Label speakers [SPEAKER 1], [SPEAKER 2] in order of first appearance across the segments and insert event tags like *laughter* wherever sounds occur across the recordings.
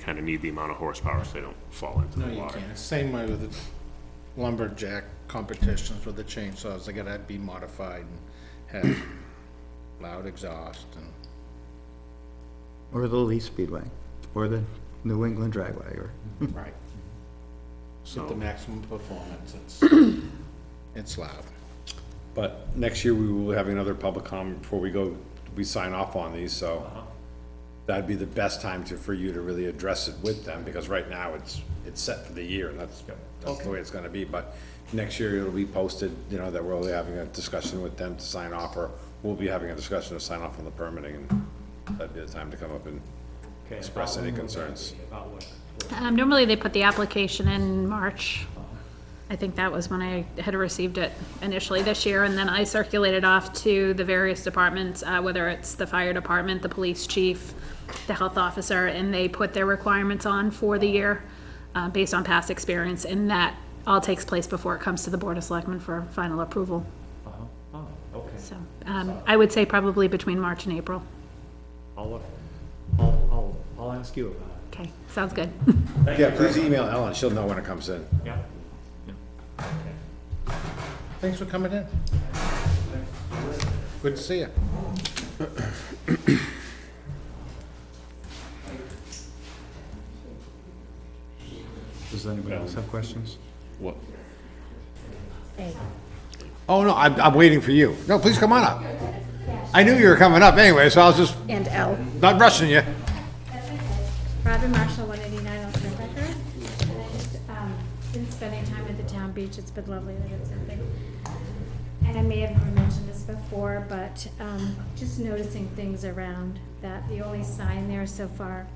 [SPEAKER 1] kind of need the amount of horsepower so they don't fall into
[SPEAKER 2] No,
[SPEAKER 1] the
[SPEAKER 2] you
[SPEAKER 1] water.
[SPEAKER 2] can't. Same way with the lumberjack competitions with the chainsaws. They gotta be modified and have loud exhaust and.
[SPEAKER 3] Or the Lee Speedway, or the New England Dragway, or,
[SPEAKER 2] Right. Get the
[SPEAKER 1] So,
[SPEAKER 2] maximum performance. It's, *clears throat* it's loud.
[SPEAKER 4] But next year, we will have another public comment before we go, we sign off on these, so that'd be the best time to, for you to really address it with them, because right now, it's, it's set for the year, and that's, that's the way it's gonna be, but next year, it'll be posted, you know, that we'll be having a discussion with them to sign off, or we'll be having a discussion to sign off on the permitting, and that'd be the time to come up and express any concerns.
[SPEAKER 5] Um, normally they put the application in March. I think that was when I had received it initially this year, and then I circulated off to the various departments, uh, whether it's the fire department, the police chief, the health officer, and they put their requirements on for the year, uh, based on past experience, and that all takes place before it comes to the Board of Selectmen for final approval.
[SPEAKER 6] Oh, okay.
[SPEAKER 5] So, um, I would say probably between March and April.
[SPEAKER 6] I'll, look- I'll, I'll, I'll ask you about it.
[SPEAKER 5] Okay, sounds good.
[SPEAKER 4] Yeah, please email Ellen, she'll know when it comes in.
[SPEAKER 6] Yeah.
[SPEAKER 2] Thanks for coming in. Good to see you.
[SPEAKER 3] does anybody else have questions?
[SPEAKER 4] What? Oh, no, I'm, I'm waiting for you. No, please come on up. I knew you were coming up anyway, so I was just
[SPEAKER 7] And L.
[SPEAKER 4] not rushing you.
[SPEAKER 7] Robin Marshall, 189 Old Smith Record. And I just, um, been spending time at the town beach, it's been lovely that it's open. And I may have mentioned this before, but um, just noticing things around that the only sign there so far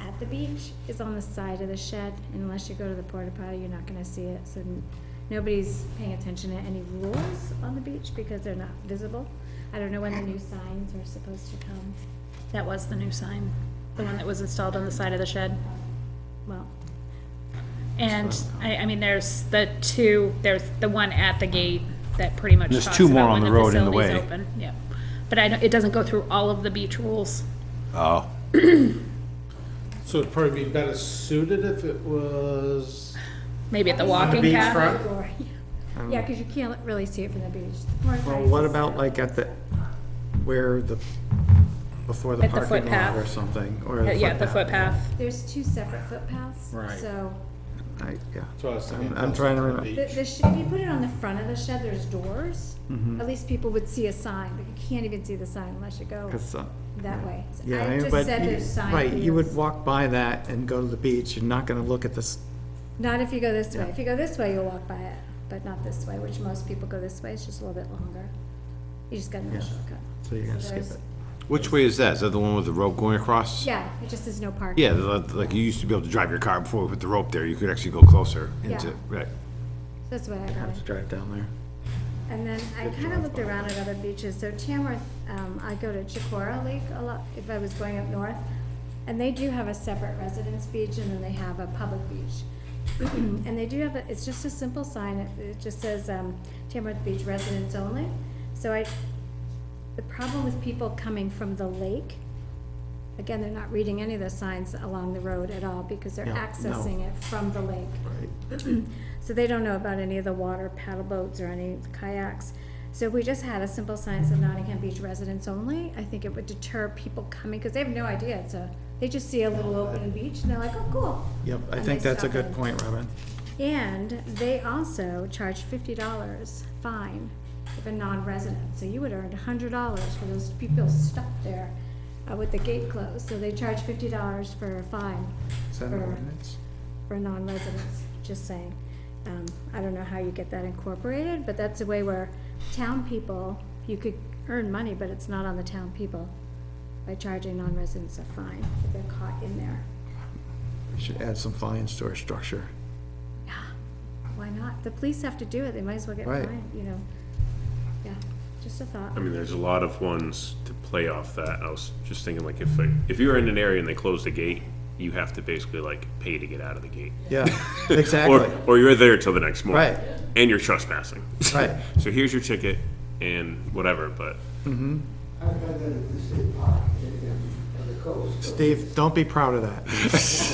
[SPEAKER 7] at the beach is on the side of the shed. Unless you go to the porta potty, you're not gonna see it. So n- nobody's paying attention to any rules on the beach because they're not visible. I don't know when the new signs are supposed to come.
[SPEAKER 5] That was the new sign, the one that was installed on the side of the shed.
[SPEAKER 7] Well,
[SPEAKER 5] And I, I mean, there's the two, there's the one at the gate that pretty much
[SPEAKER 4] There's
[SPEAKER 5] talks
[SPEAKER 4] two more
[SPEAKER 5] about
[SPEAKER 4] on
[SPEAKER 5] when
[SPEAKER 4] the road in the
[SPEAKER 5] facility's
[SPEAKER 4] way.
[SPEAKER 5] open, Yeah, but I, don't- it doesn't go through all of the beach rules.
[SPEAKER 4] Oh.
[SPEAKER 2] So it'd probably be better suited if it was.
[SPEAKER 5] Maybe at the walking path.
[SPEAKER 7] Or- Yeah, because you can't really see it from the beach.
[SPEAKER 3] Well, what about like at the, where the, before the
[SPEAKER 5] At the
[SPEAKER 3] parking lot
[SPEAKER 5] footpath.
[SPEAKER 3] or something, or
[SPEAKER 5] Uh,
[SPEAKER 3] the
[SPEAKER 5] Yeah, the
[SPEAKER 3] footpath?
[SPEAKER 5] footpath.
[SPEAKER 7] There's two separate footpaths.
[SPEAKER 2] Right.
[SPEAKER 7] So
[SPEAKER 3] I- Yeah,
[SPEAKER 2] So I was thinking
[SPEAKER 3] I'm- I'm trying to remember.
[SPEAKER 7] the, the, sh- if you put it on the front of the shed, there's doors. At least people would see a sign, but you can't even see the sign unless you go
[SPEAKER 3] 'cause, uh,
[SPEAKER 7] that way. So
[SPEAKER 3] yeah,
[SPEAKER 7] I
[SPEAKER 3] I mean,
[SPEAKER 7] just
[SPEAKER 3] but
[SPEAKER 7] said
[SPEAKER 3] you-
[SPEAKER 7] there's sign.
[SPEAKER 3] Right, you would
[SPEAKER 7] here.
[SPEAKER 3] walk by that and go to the beach, you're not gonna look at this,
[SPEAKER 7] Not if you go this way. If you go this way, you'll walk by it, but not this way, which most people go this way. It's just a little bit longer. You just got no shortcut.
[SPEAKER 3] so you're gonna skip
[SPEAKER 7] There's-
[SPEAKER 3] it.
[SPEAKER 4] Which way is that? Is that the one with the rope going across?
[SPEAKER 7] Yeah, it just is no parking.
[SPEAKER 4] Yeah, the- like you used to be able to drive your car before with the rope there. You could actually go closer into,
[SPEAKER 7] Yeah.
[SPEAKER 4] right.
[SPEAKER 7] That's what I got.
[SPEAKER 3] Have to drive down there.
[SPEAKER 7] And then I kind of looked around at other beaches, so Tamworth, um, I go to Chicora Lake a lot, if I was going up north. And they do have a separate residence beach and then they have a public beach. *clears throat* And they do have, a it's just a simple sign, it, it just says, um, Tamworth Beach residents only. So I, the problem with people coming from the lake, again, they're not reading any of the signs along the road at all because they're
[SPEAKER 3] Yeah, no.
[SPEAKER 7] accessing it from the lake. So they don't know about any of the water paddle boats or any kayaks. So if we just had a simple sign that said Nottingham Beach residents only, I think it would deter people coming, because they have no idea, it's a, they just see a little open beach, and they're like, oh, cool.
[SPEAKER 3] Yep, I
[SPEAKER 7] And
[SPEAKER 3] think
[SPEAKER 7] they
[SPEAKER 3] that's a
[SPEAKER 7] stop
[SPEAKER 3] good
[SPEAKER 7] in.
[SPEAKER 3] point, Robin.
[SPEAKER 7] And they also charge fifty dollars fine if a non-resident, so you would earn hundred dollars for those people stuck there uh, with the gate closed, so they charge fifty dollars for a fine.
[SPEAKER 3] Is that an
[SPEAKER 7] for-
[SPEAKER 3] ordinance?
[SPEAKER 7] for non-residents, just saying. Um, I don't know how you get that incorporated, but that's a way where town people, you could earn money, but it's not on the town people by charging non-residents a fine if they're caught in there.
[SPEAKER 3] We should add some fines to our structure.
[SPEAKER 7] Why not? The police have to do it, they might as well get
[SPEAKER 3] Right.
[SPEAKER 7] fined, you know? Yeah, just a thought.
[SPEAKER 1] I mean, there's a lot of ones to play off that. I was just thinking like if, like, if you're in an area and they close the gate, you have to basically like pay to get out of the gate.
[SPEAKER 7] *laughs*
[SPEAKER 3] Yeah,
[SPEAKER 1] Or,
[SPEAKER 3] exactly.
[SPEAKER 1] or you're there till the next morning.
[SPEAKER 3] Right.
[SPEAKER 1] And you're trespassing.
[SPEAKER 3] Right.
[SPEAKER 1] *laughs* So here's your ticket and whatever, but
[SPEAKER 8] I've done that at the state park and, and on the coast.
[SPEAKER 3] Steve, don't be proud of that.